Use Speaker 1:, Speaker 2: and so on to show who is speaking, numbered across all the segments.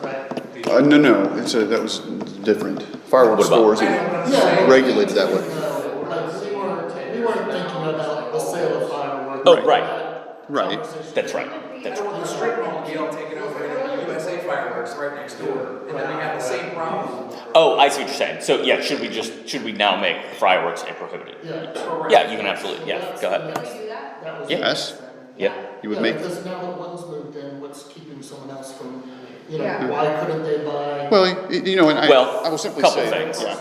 Speaker 1: right?
Speaker 2: Uh, no, no, it's a, that was different. Fireworks
Speaker 3: What about-
Speaker 2: stores are regulated that way.
Speaker 1: We're not, we weren't, we weren't thinking about the sale of fireworks.
Speaker 3: Oh, right,
Speaker 2: Right.
Speaker 3: that's right, that's right.
Speaker 4: The strip mall deal taken over the USA fireworks right next door, and then they have the same problem.
Speaker 3: Oh, I see what you're saying, so yeah, should we just, should we now make fireworks a prohibited?
Speaker 1: Yeah.
Speaker 3: Yeah, you can absolutely, yeah, go ahead,
Speaker 5: Can we do that?
Speaker 1: That was-
Speaker 2: Yes,
Speaker 3: yeah.
Speaker 2: you would
Speaker 1: Yeah,
Speaker 2: make,
Speaker 1: Because now that one's moved in, what's keeping someone else from, you know,
Speaker 5: Yeah.
Speaker 1: why couldn't they buy?
Speaker 2: well, y- you know, and I,
Speaker 3: Well,
Speaker 2: I will simply
Speaker 3: couple
Speaker 2: say.
Speaker 3: things.
Speaker 2: yeah.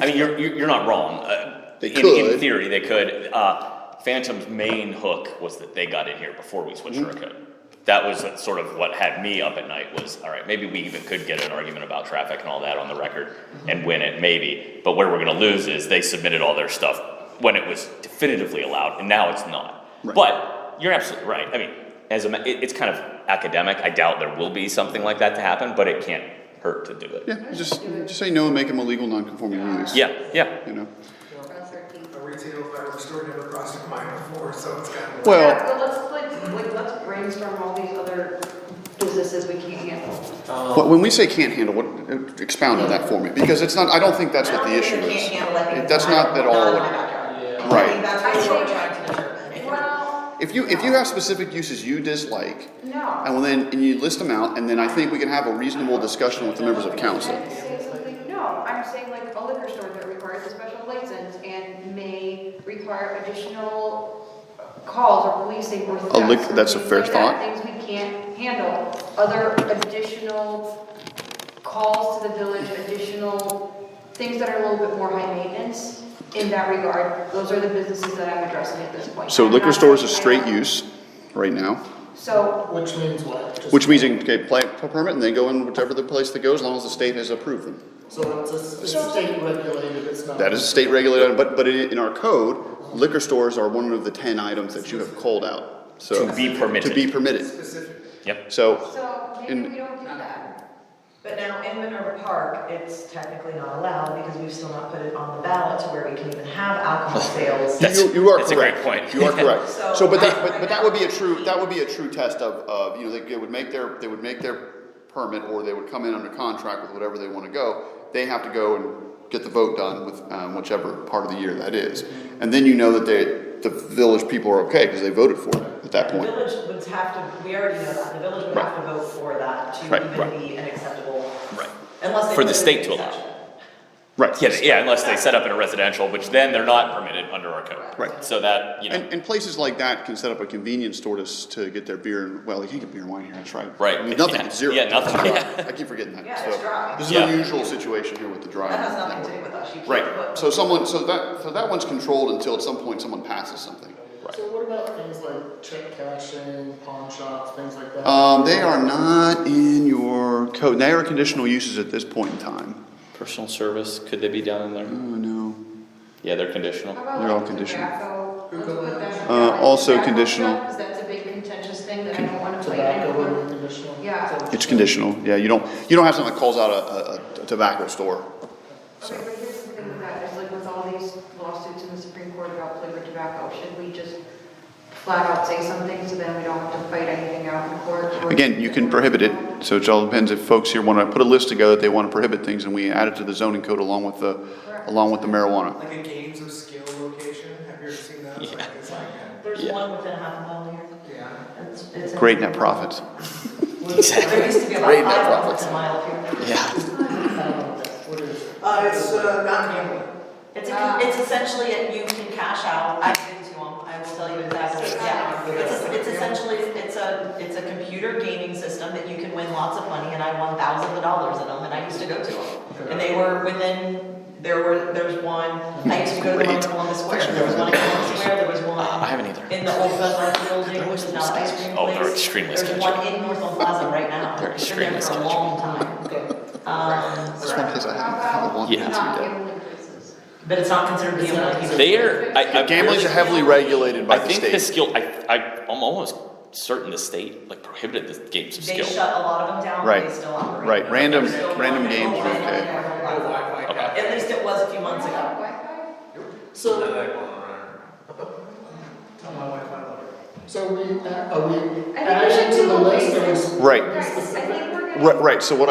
Speaker 3: I mean, you're, you're you're not wrong. Uh,
Speaker 2: They
Speaker 3: in, In
Speaker 2: could.
Speaker 3: theory, they could. Uh, Phantom's main hook was that they got in here before we switched
Speaker 2: Mm-hmm.
Speaker 3: our code. That was sort of what had me up at night was, all right, maybe we even could get an argument about traffic and all that on the record
Speaker 2: Mm-hmm.
Speaker 3: and win it, maybe. But where we're gonna lose is they submitted all their stuff when it was definitively allowed, and now it's not.
Speaker 2: Right.
Speaker 3: But you're absolutely right. I mean, as a, ma- it, it's kind of academic. I doubt there will be something like that to happen, but it can't hurt to do it.
Speaker 2: Yeah, just, just say no and make them a legal non-conforming use.
Speaker 3: Yeah, yeah.
Speaker 2: You know,
Speaker 4: A retail fireworks store never crossed my mind before, so it's kind of.
Speaker 2: well,
Speaker 5: Yeah, well, let's, like, like, let's brainstorm all these other businesses we can't handle.
Speaker 2: but when we say can't handle, what, uh, expound on that for me, because it's not, I don't think that's what the issue is. That's not at all what- Right.
Speaker 5: Well,
Speaker 2: If you, if you have specific uses you dislike,
Speaker 5: no.
Speaker 2: and well then, and you list them out, and then I think we can have a reasonable discussion with the members of council.
Speaker 5: I'm saying something- No, I'm saying like a liquor store that requires a special license and may require additional calls or policing or thefts.
Speaker 2: lic-
Speaker 5: or
Speaker 2: that's a
Speaker 5: things
Speaker 2: fair
Speaker 5: like that,
Speaker 2: thought.
Speaker 5: Things we can't handle, other additional calls to the village, additional things that are a little bit more high maintenance in that regard. Those are the businesses that I'm addressing at this point.
Speaker 2: So
Speaker 5: I'm
Speaker 2: liquor
Speaker 5: not-
Speaker 2: stores is
Speaker 5: I
Speaker 2: straight
Speaker 5: don't-
Speaker 2: use right now,
Speaker 5: So,
Speaker 1: Which means what? Just-
Speaker 2: which means you can get a plant permit and they go in whichever the place that goes, as long as the state has approved them.
Speaker 1: So it's a s- it's state regulated, it's not.
Speaker 2: That is state regulated, but, but in in our code, liquor stores are one of the ten items that you have called out, so.
Speaker 3: To be permitted.
Speaker 2: To be permitted,
Speaker 4: Specific.
Speaker 3: Yep.
Speaker 2: so,
Speaker 5: so maybe
Speaker 2: In-
Speaker 5: we don't do that.
Speaker 6: But now in Minerva Park, it's technically not allowed because we've still not put it on the ballot to where we can even have alcohol sales.
Speaker 3: That's-
Speaker 2: you, you are correct.
Speaker 3: that's a great point.
Speaker 2: You are correct,
Speaker 6: So-
Speaker 2: so, but that, but, but that would be a true, that would be a true test of, of, you know, they, they would make their, they would make their permit, or they would come in under contract with whatever they wanna go, they have to go and get the vote done with, um, whichever part of the year that is. And then you know that they, the village people are okay, cause they voted for it at that
Speaker 6: The
Speaker 2: point.
Speaker 6: village would have to, we already know that, the village would have to vote for that to
Speaker 2: Right,
Speaker 6: even
Speaker 3: right.
Speaker 6: be an acceptable,
Speaker 3: Right.
Speaker 6: unless they.
Speaker 3: For the
Speaker 6: put it in
Speaker 3: state to
Speaker 6: the
Speaker 3: allow.
Speaker 6: section.
Speaker 2: Right.
Speaker 3: Yeah, yeah, unless they set up in a residential, which then they're not permitted under our code.
Speaker 2: Right.
Speaker 3: So that, you know,
Speaker 2: And, and places like that can set up a convenience store to, s- to get their beer and, well, they can't get beer and wine here, that's right.
Speaker 3: Right,
Speaker 2: Nothing,
Speaker 3: yeah,
Speaker 2: it's zero.
Speaker 3: yeah, nothing,
Speaker 2: It's dry.
Speaker 3: yeah.
Speaker 2: I keep forgetting that,
Speaker 6: Yeah,
Speaker 2: so.
Speaker 6: it's dry.
Speaker 2: This is
Speaker 3: Yeah.
Speaker 2: an unusual situation here with the dry.
Speaker 6: That has nothing to do with us, you can't.
Speaker 2: Right,
Speaker 6: put-
Speaker 2: so someone, so that, so that one's controlled until at some point someone passes something.
Speaker 1: So what about things like check cashing, pawn shops, things like that?
Speaker 2: Um, they are not in your code, they are conditional uses at this point in time.
Speaker 3: personal service, could they be down in there?
Speaker 2: Oh, no.
Speaker 3: Yeah, they're
Speaker 5: How
Speaker 3: conditional.
Speaker 5: about
Speaker 2: They're all
Speaker 5: like
Speaker 2: conditional.
Speaker 5: tobacco? Let's put that-
Speaker 2: Uh, also
Speaker 5: tobacco
Speaker 2: conditional.
Speaker 5: stuff, 'cause that's a big contentious thing that I don't wanna play. I
Speaker 1: Tobacco
Speaker 5: don't
Speaker 1: would
Speaker 5: wanna-
Speaker 1: be conditional?
Speaker 5: Yeah.
Speaker 2: It's conditional, yeah, you don't, you don't have something that calls out a, a- a tobacco store.
Speaker 5: Okay, but here's the thing with that, is like with all these lawsuits in the Supreme Court about flavored tobacco, should we just flat out say something so then we don't have to fight anything out in court? or-
Speaker 2: Again, you can prohibit it, so it all depends if folks here want to put a list together that they want to prohibit things, and we add it to the zoning code along with the, along with the marijuana.
Speaker 4: Like a games of skill location, have you ever seen that? It's like, it's like, a-
Speaker 6: There's
Speaker 3: Yeah.
Speaker 6: one within half a mile here.
Speaker 4: yeah.
Speaker 6: It's- it's in-
Speaker 2: Great net profits.
Speaker 6: There used to be about
Speaker 2: Great net
Speaker 6: five
Speaker 2: profits.
Speaker 6: within a mile here.
Speaker 3: Yeah.
Speaker 1: What is it?
Speaker 4: Uh, it's, uh, not gambling.
Speaker 6: It's, a- it's essentially, a- you can cash out, I've been to them, I will tell you exactly, yeah. It's, it's essentially, it's a, it's a computer gaming system that you can win lots of money, and I won thousands of dollars in them, and I used to go to them. And they were within, there were, there's one, I used to go to one in
Speaker 2: Great.
Speaker 6: Columbus Square, there was one in Columbus Square, there was one.
Speaker 3: I haven't either.
Speaker 6: In the old Budweiser building, which is now the ice cream
Speaker 3: Oh,
Speaker 6: place.
Speaker 3: they're extremely
Speaker 6: There's
Speaker 3: sketchy.
Speaker 6: one in Northland Plaza right now.
Speaker 3: They're
Speaker 6: It's been there
Speaker 3: extremely
Speaker 6: for a
Speaker 3: sketchy.
Speaker 6: long time. Um,
Speaker 2: That's one place I
Speaker 5: How
Speaker 2: haven't, haven't
Speaker 5: about
Speaker 2: wanted to do
Speaker 5: not
Speaker 2: that.
Speaker 5: gambling places?
Speaker 6: but it's not considered gambling either.
Speaker 3: They're, I, I'm
Speaker 2: Gambling's
Speaker 3: really-
Speaker 2: heavily regulated by
Speaker 3: I
Speaker 2: the
Speaker 3: think the
Speaker 2: state.
Speaker 3: skill, I, I, I'm almost certain the state like prohibited the games of
Speaker 6: They
Speaker 3: skill.
Speaker 6: shut a lot of them down, but
Speaker 2: Right,
Speaker 6: they still operate.
Speaker 2: right, random,
Speaker 6: They're still
Speaker 2: random
Speaker 6: running.
Speaker 2: games are okay.
Speaker 6: At least it was a few months ago.
Speaker 5: Wi-Fi?
Speaker 1: So,
Speaker 4: Tell my wife I love her.
Speaker 1: so we, add- are we
Speaker 5: I think we should
Speaker 1: adding to
Speaker 5: do
Speaker 1: the
Speaker 5: a
Speaker 1: list
Speaker 5: list.
Speaker 1: or is?
Speaker 2: Right.
Speaker 5: Guys, I think we're gonna.
Speaker 2: Right, right, so what